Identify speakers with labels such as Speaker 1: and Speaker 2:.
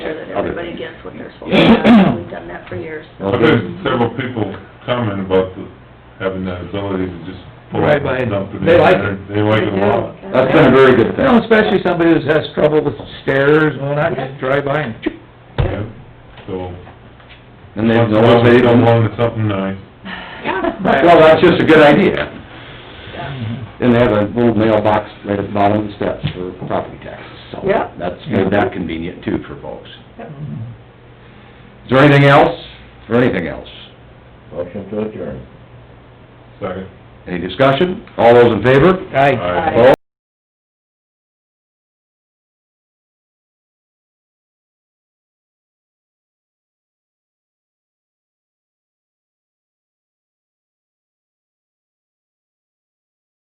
Speaker 1: everybody gets what they're supposed to have, we've done that for years.
Speaker 2: I've had several people comment about the, having that ability to just pull up
Speaker 3: Right, but
Speaker 2: something.
Speaker 3: they like it.
Speaker 2: and They like it a lot.
Speaker 4: That's been a very good
Speaker 3: You know,
Speaker 4: thing.
Speaker 3: especially somebody who has trouble with stairs and whatnot, just drive by and choop.
Speaker 2: Yeah. So,
Speaker 4: And they
Speaker 2: once in
Speaker 4: know
Speaker 2: a while,
Speaker 4: they
Speaker 2: they
Speaker 4: don't
Speaker 2: come along to something nice.
Speaker 1: Yeah.
Speaker 4: Well, that's just a good idea. And they have a little mailbox right at the bottom of the steps for property taxes, so.
Speaker 1: Yep.
Speaker 4: That's made that convenient too for folks. Is there anything else? Is there anything else?
Speaker 5: Motion to adjourn.
Speaker 2: Second.
Speaker 4: Any discussion? All those in favor?
Speaker 3: Aye.
Speaker 2: Aye.
Speaker 4: Opposed?